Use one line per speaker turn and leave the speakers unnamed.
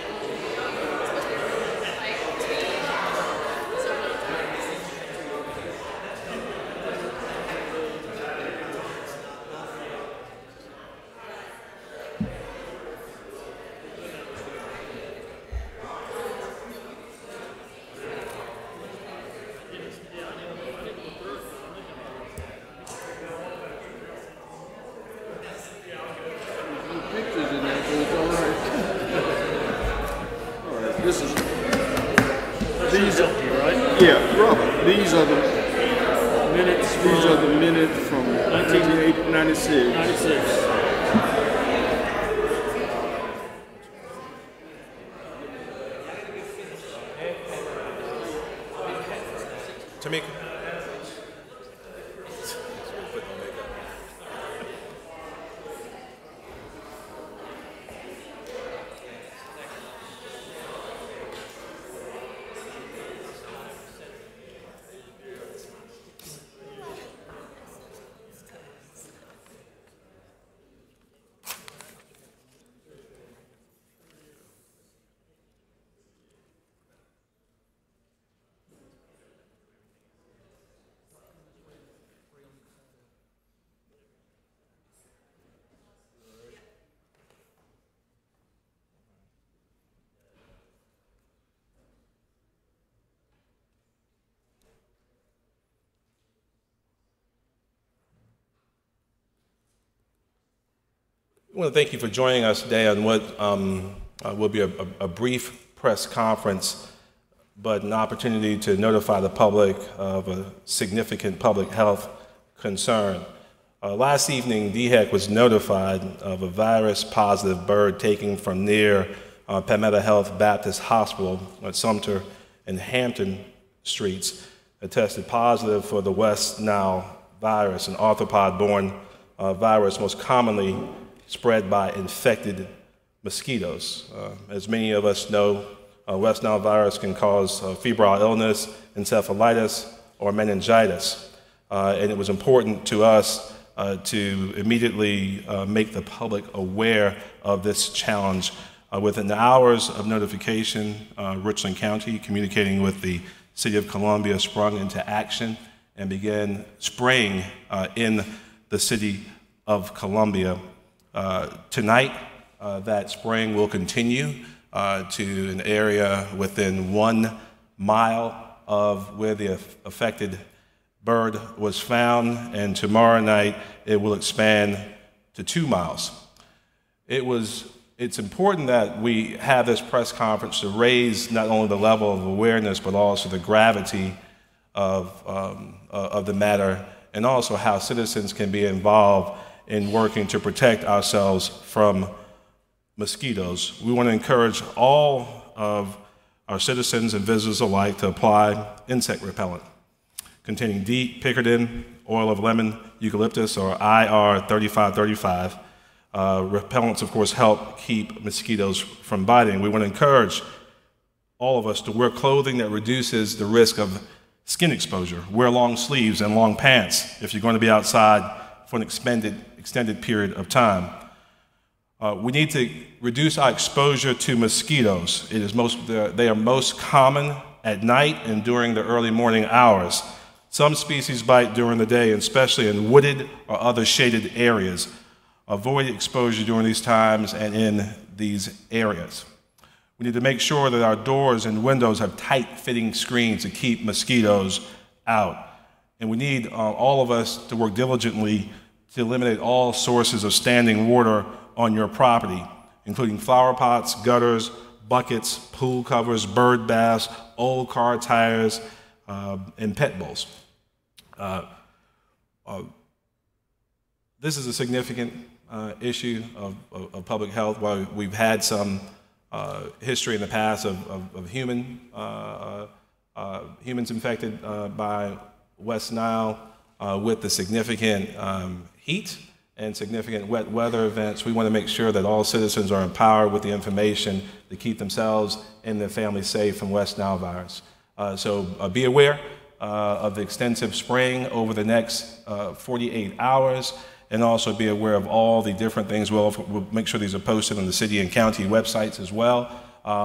This is these are
empty, right?
yeah, rubber. These are the
Minutes from
these are the minutes from 1996.
96.
Tamika. I want to thank you for joining us today on what um, uh, will be a, a- a brief press conference, but an opportunity to notify the public of a significant public health concern. Uh, last evening, DHEC was notified of a virus positive bird taken from near uh, Palmetto Health Baptist Hospital at Sumter and Hampton Streets that tested positive for the West Nile virus, an arthropod borne uh, virus most commonly spread by infected mosquitoes. Uh, as many of us know, uh, West Nile virus can cause uh, febrile illness, encephalitis, or meningitis. Uh, and it was important to us uh, to immediately uh, make the public aware of this challenge. Uh, within the hours of notification, uh, Richland County, communicating with the City of Columbia, sprung into action and began spraying uh, in the City of Columbia. Uh, tonight, uh, that spraying will continue uh, to an area within one mile of where the aff- affected bird was found, and tomorrow night it will expand to two miles. It was, it's important that we have this press conference to raise not only the level of awareness, but also the gravity of, um, uh, of the matter, and also how citizens can be involved in working to protect ourselves from mosquitoes. We want to encourage all of our citizens and visitors alike to apply insect repellent containing DEET, Pickardin, oil of lemon, eucalyptus, or IR 3535. Uh, repellents, of course, help keep mosquitoes from biting. We want to encourage all of us to wear clothing that reduces the risk of skin exposure. Wear long sleeves and long pants if you're going to be outside for an expended, extended period of time. Uh, we need to reduce our exposure to mosquitoes. It is most, they are- they are most common at night and during the early morning hours. Some species bite during the day, especially in wooded or other shaded areas. Avoid exposure during these times and in these areas. We need to make sure that our doors and windows have tight fitting screens to keep mosquitoes out. And we need uh, all of us to work diligently to eliminate all sources of standing water on your property, including flower pots, gutters, buckets, pool covers, bird baths, old car tires, uh, and pet bowls. this is a significant uh, issue of, of, of public health. While we've had some uh, history in the past of, of, of human uh, uh, humans infected uh, by West Nile uh, with the significant um, heat and significant wet weather events, we want to make sure that all citizens are empowered with the information to keep themselves and their families safe from West Nile virus. Uh, so uh, be aware uh, of the extensive spraying over the next uh, 48 hours, and also be aware of all the different things. We'll, Uh, we'll make sure these are posted on the city and county websites as well,